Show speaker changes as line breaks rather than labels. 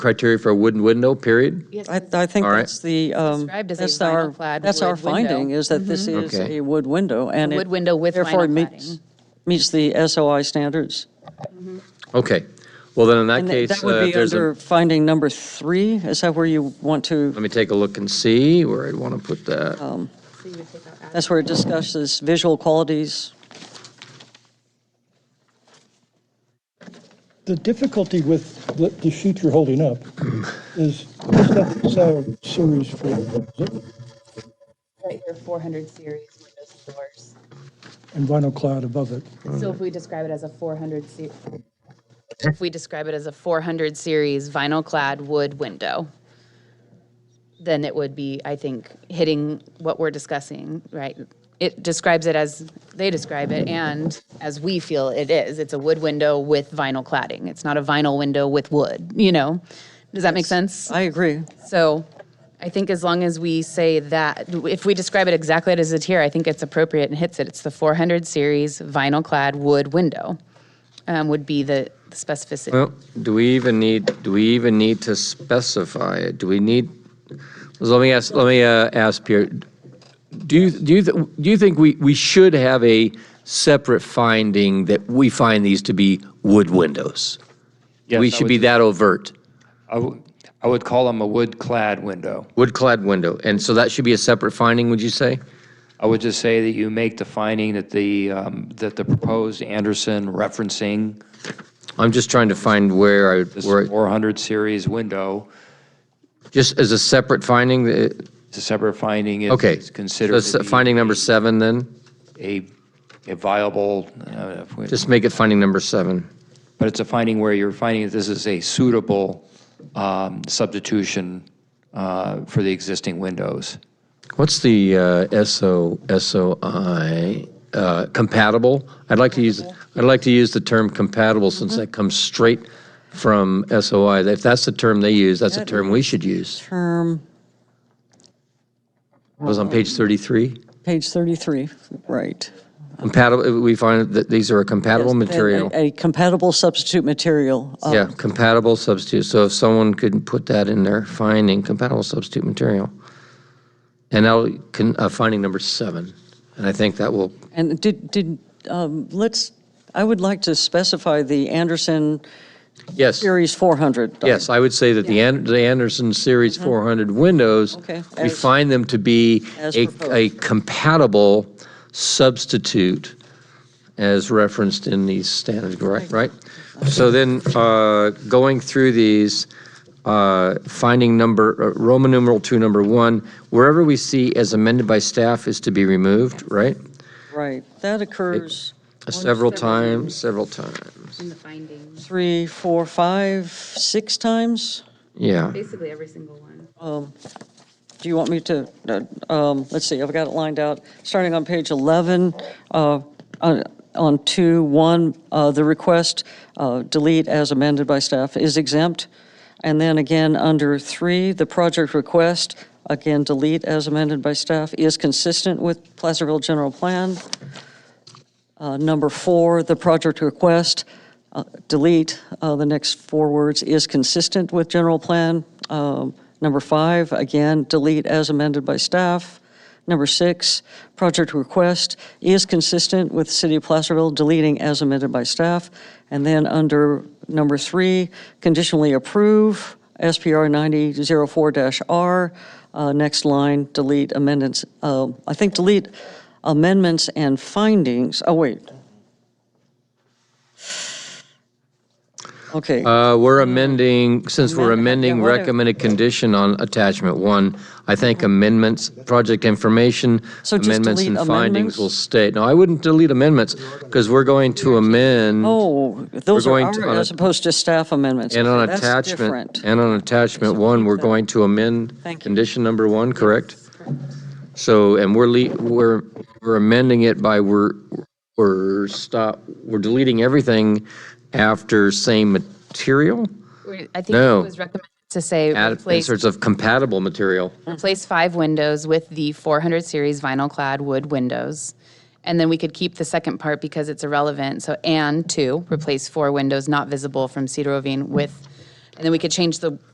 criteria for a wooden window, period?
Yes,
I, I think
All right.
that's the, um,
Described as a
that's our,
vinyl-clad
that's our
wood window. Mm-hmm.
finding, is that this is
Okay.
a wood window, and it.
wood window with
Therefore
vinyl
meets, meets the SOI standards.
Okay, well, then in that
And that-
case,
that
uh,
would
if
be
there's
under
a,
finding number three, is that where you want to,
let me take a look and see where I'd want to put that.
Um, that's where it discusses visual qualities?
The difficulty with the- the sheet you're holding up is this stuff is our series for,
Right here, 400 series windows and doors.
and vinyl cloud above it.
So if we describe it as a 400 se- if we describe it as a 400 series vinyl clad wood window, then it would be, I think, hitting what we're discussing, right? It describes it as they describe it and as we feel it is. It's a wood window with vinyl cladding. It's not a vinyl window with wood, you know? Does that make sense?
I agree.
So I think as long as we say that, if we describe it exactly as it's here, I think it's appropriate and hits it. It's the 400 series vinyl clad wood window um, would be the the specificity.
Well, do we even need, do we even need to specify it? Do we need, let me ask, let me uh, ask Pierre, do you, do you, th- do you think we, we should have a separate finding that we find these to be wood windows?
Yes,
We
I
should
would-
be that overt,
I would- I would call them a wood-clad window.
wood-clad window, and so that should be a separate finding, would you say?
I would just say that you make the finding that the, um, that the proposed Anderson referencing
I'm just trying to find where I,
this
where,
400 series window,
just as a separate finding, that-
it's a separate finding. It's-
okay.
It's considered
So
to
s-
be
Finding number seven, then?
a, a viable, uh, if we-
Just make it finding number seven.
but it's a finding where you're finding that this is a suitable um, substitution uh, for the existing windows.
What's the uh, SO, SOI, uh, compatible? I'd like to use, I'd like to use the term compatible since that comes straight from SOI. If that's the term they use, that's a term we should use.
Term,
It was on
Oh.
page 33.
page 33, right.
Compatible, we find that these are a compatible
Yes, that
material.
A a compatible substitute material. uh,
Yeah, compatible substitute, so if someone could put that in their finding, compatible substitute material. And now, can, uh, finding number seven, and I think that will,
And did, did, um, let's, I would like to specify the Anderson
yes,
Series 400.
yes, I would say that the An, the Anderson Series four hundred windows,
Uh-huh. Okay,
we
as-
find them to be
As
a,
proposed.
a compatible substitute as referenced in these standards, right, right? So then, uh, going through these, uh, finding number, uh, Roman numeral two, number one, wherever we see as amended by staff is to be removed, right?
Right, that occurs
Several times, several times,
In the findings,
three, four, five, six times?
yeah.
basically every single one.
Do you want me to, uh, um, let's see, I've got it lined out, starting on page 11, uh, on- on 2, 1, uh, the request, uh, delete as amended by staff, is exempt. And then again, under 3, the project request, again, delete as amended by staff, is consistent with Placerville General Plan. Uh, Number 4, the project request, uh, delete uh, the next four words, is consistent with general plan. Um, Number 5, again, delete as amended by staff. Number 6, project request is consistent with City of Placerville, deleting as amended by staff. And then under number 3, conditionally approve, SPR 9004-R, uh, next line, delete amendments, uh, I think delete amendments and findings, oh, wait. Okay,
Uh, We're amending, since we're
Amendment, yeah,
amending
what are-
recommended condition on attachment one, I think amendments, project information,
So just
amendments and
delete
findings
amendments?
will stay. No, I wouldn't delete amendments, because we're going to amend,
oh, those are
going to-
our,
on a-
as opposed to staff amendments.
and on
Okay, that's
attachment,
different.
and on attachment one, we're going to amend
Thank you.
condition number one, correct? So, and we're, le- we're, we're amending it by, we're, we're stop, we're deleting everything after same material?
I think
No.
it was recommended to say
Add
replace,
inserts of compatible material.
replace five windows with the 400 series vinyl clad wood windows. And then we could keep the second part because it's irrelevant. So, and two, replace four windows not visible from Cedar Ravine with, and then we could change the